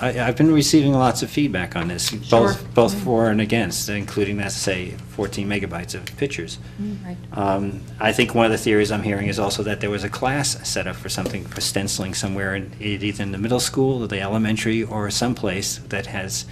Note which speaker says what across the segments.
Speaker 1: I, I've been receiving lots of feedback on this,
Speaker 2: Sure.
Speaker 1: both, both for and against, including that, say, 14 megabytes of pictures.
Speaker 2: Right.
Speaker 1: Um, I think one of the theories I'm hearing is also that there was a class set up for something, for stenciling somewhere, in it either in the middle school, or the elementary, or someplace that has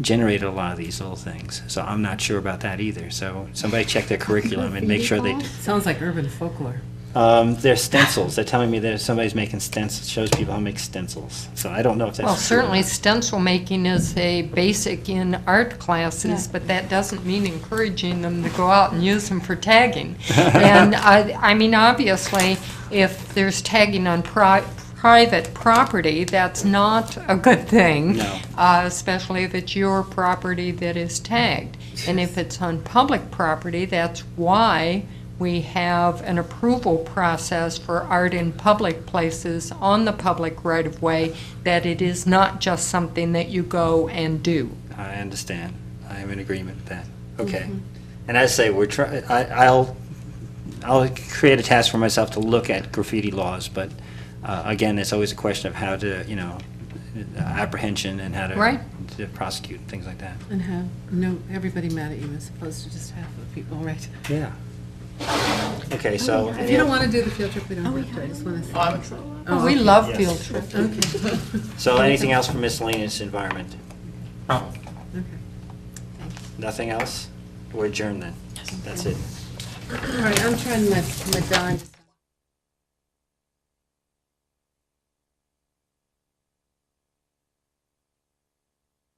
Speaker 1: generated a lot of these little things. So I'm not sure about that either, so somebody check their curriculum and make sure they,
Speaker 3: Sounds like urban folklore.
Speaker 1: um, they're stencils, they're telling me that somebody's making stencils, shows people how to make stencils, so I don't know if that's.
Speaker 3: Well,
Speaker 1: true or
Speaker 3: certainly
Speaker 1: not.
Speaker 3: stencil making is a basic in art classes,
Speaker 2: Yeah.
Speaker 3: but that doesn't mean encouraging them to go out and use them for tagging. And I, I mean, obviously, if there's tagging on pri- private property, that's not a good thing.
Speaker 1: No.
Speaker 3: Uh, especially if it's your property that is tagged. And if it's on public property, that's why we have an approval process for art in public places on the public right-of-way, that it is not just something that you go and do.
Speaker 1: I understand. I am in agreement with that. Okay. And I say, we're try, I, I'll, I'll create a task for myself to look at graffiti laws, but, uh, again, it's always a question of how to, you know, uh, apprehension and how to.
Speaker 3: Right.
Speaker 1: To prosecute, and things like that.
Speaker 2: And have, no, everybody mad at you as opposed to just half of the people, right?
Speaker 1: Yeah. Okay, so.
Speaker 2: If you don't want to do the field trip, Oh, we don't have to, I just want to.
Speaker 3: We love field
Speaker 1: Yes.
Speaker 3: trips.
Speaker 2: Okay,
Speaker 1: So anything else for miscellaneous environment?
Speaker 2: okay.
Speaker 1: Nothing else? We're adjourned then. That's it.
Speaker 2: All right, I'm trying my, my dime.